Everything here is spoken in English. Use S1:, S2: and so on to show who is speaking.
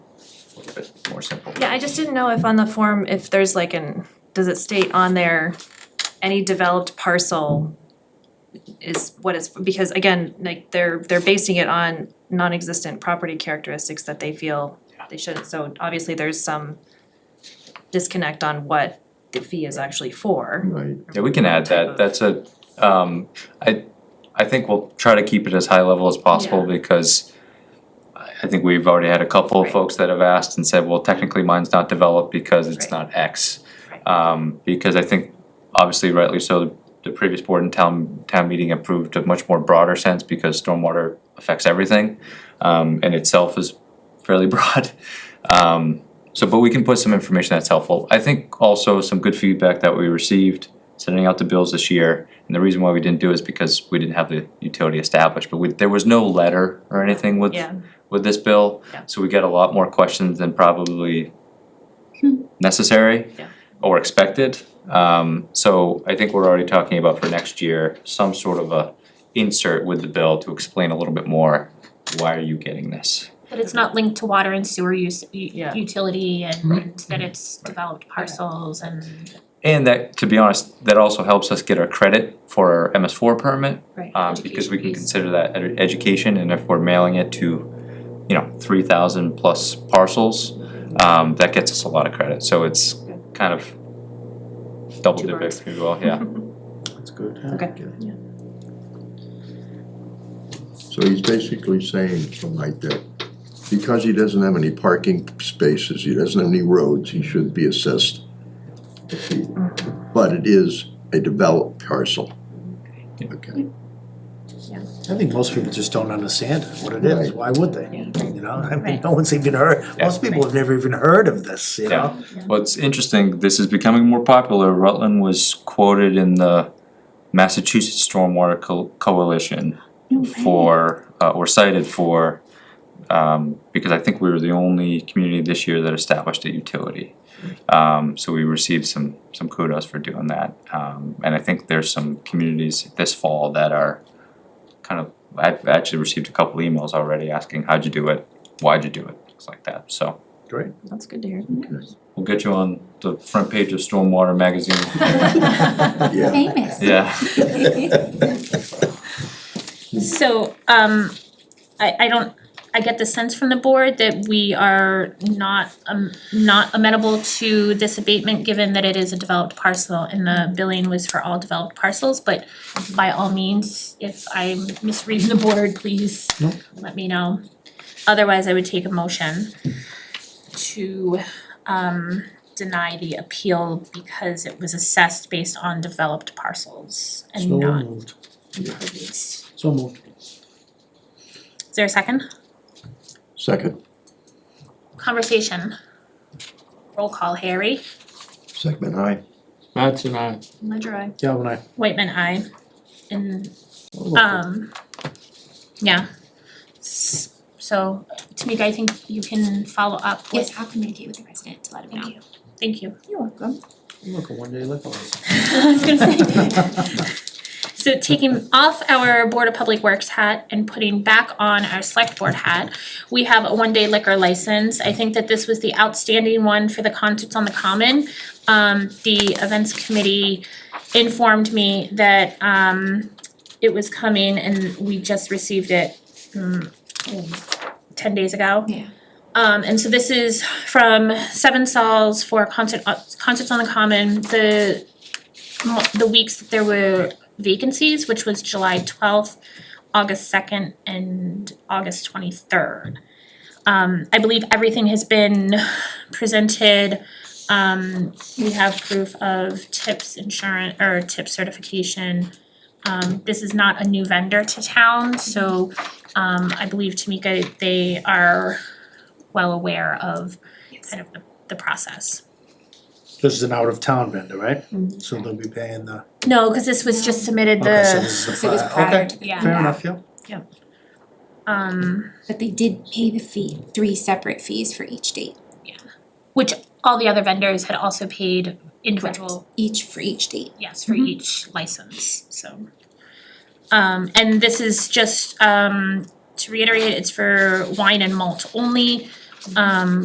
S1: I just didn't know if on the form, if there's like an, does it state on there, any developed parcel is what is, because again, like they're, they're basing it on non-existent property characteristics that they feel they shouldn't, so obviously there's some disconnect on what the fee is actually for.
S2: Right,
S3: Yeah, we can add that, that's a, um, I, I think we'll try to keep it as high level as possible because I, I think we've already had a couple of
S1: Right.
S3: folks that have asked and said, well, technically mine's not developed because it's
S1: Right.
S3: not X.
S1: Right.
S3: Um, because I think, obviously rightly so, the previous board and town, town meeting approved a much more broader sense because stormwater affects everything. Um, and itself is fairly broad. Um, so, but we can put some information that's helpful. I think also some good feedback that we received sending out the bills this year. And the reason why we didn't do it is because we didn't have the utility established, but we, there was no letter or anything with,
S1: Yeah.
S3: with this bill.
S1: Yeah.
S3: So we get a lot more questions than probably necessary
S1: Yeah.
S3: or expected. Um, so I think we're already talking about for next year, some sort of a insert with the bill to explain a little bit more, why are you getting this?
S4: But it's not linked to water and sewer use, u-
S1: Yeah.
S4: utility and
S2: Right.
S4: and that it's developed parcels and
S3: And that, to be honest, that also helps us get our credit for our MS four permit,
S4: right,
S3: um, because we can
S4: education piece.
S3: consider that ed- education, and if we're mailing it to, you know, three thousand plus parcels, um, that gets us a lot of credit, so it's kind of double
S1: Two
S3: dip,
S1: birds.
S3: if you will, yeah.
S2: that's good.
S1: Okay. Yeah.
S2: So he's basically saying something like that, because he doesn't have any parking spaces, he doesn't have any roads, he should be assessed. a fee. But it is a developed parcel. Okay,
S5: I think most people just don't understand what it is,
S2: Right.
S5: why would they? You know, I mean,
S4: Right.
S5: no one's even heard,
S3: Yeah.
S5: most people have never even heard of this,
S3: Yeah.
S5: you know?
S3: What's interesting, this is becoming more popular, Rutland was quoted in the Massachusetts Stormwater Co- Coalition for, uh, or cited for, um, because I think we were the only community this year that established a utility. Um, so we received some, some kudos for doing that, um, and I think there's some communities this fall that are kind of, I've actually received a couple emails already asking, how'd you do it, why'd you do it, things like that, so.
S1: That's good to hear.
S3: We'll get you on the front page of Stormwater magazine.
S2: yeah,
S4: Famous.
S3: Yeah.
S4: So, um, I, I don't, I get the sense from the board that we are not, um, not amenable to this abatement, given that it is a developed parcel and the billing was for all developed parcels, but by all means, if I'm misreading the board, please
S5: Nope.
S4: let me know. Otherwise, I would take a motion to, um, deny the appeal because it was assessed based on developed parcels and not
S5: moved,
S4: improvements.
S5: so moved.
S4: Is there a second?
S2: second,
S4: Conversation. Roll call, Harry.
S2: segment I,
S6: Matt's and I.
S1: Ledger I.
S5: Galvin, I.
S4: Whitman, I. And,
S5: Well,
S4: um, yeah. S- So, Tamika, I think you can follow up with.
S7: Yes, I'll communicate with the president to let him know.
S4: Thank you. Thank you.
S7: You're welcome.
S5: Look, a one-day liquor license.
S4: I was gonna say. So taking off our Board of Public Works hat and putting back on our Select Board hat, we have a one-day liquor license. I think that this was the outstanding one for the concerts on the common. Um, the events committee informed me that, um, it was coming and we just received it, mm, mm, ten days ago.
S7: Yeah.
S4: Um, and so this is from Seven Sols for concert, uh, concerts on the common. The mo- the weeks that there were vacancies, which was July twelfth, August second, and August twenty-third. Um, I believe everything has been presented. Um, we have proof of tips insurance, or tip certification. Um, this is not a new vendor to town, so, um, I believe Tamika, they are well aware of kind of the, the process.
S5: This is an out-of-town vendor, right? So they'll be paying the,
S4: No, cause this was just submitted Mm-hmm. the.
S5: okay, so this is the
S7: So it was
S5: fi-
S7: prior
S5: okay,
S7: to the.
S4: yeah.
S5: fair enough, yeah.
S4: Um,
S7: But they did pay the fee, three separate fees for each date,
S4: which all the other vendors had also paid individual,
S7: each for each date.
S4: yes, for each license, so. Um, and this is just, um, to reiterate, it's for wine and malt only. Um,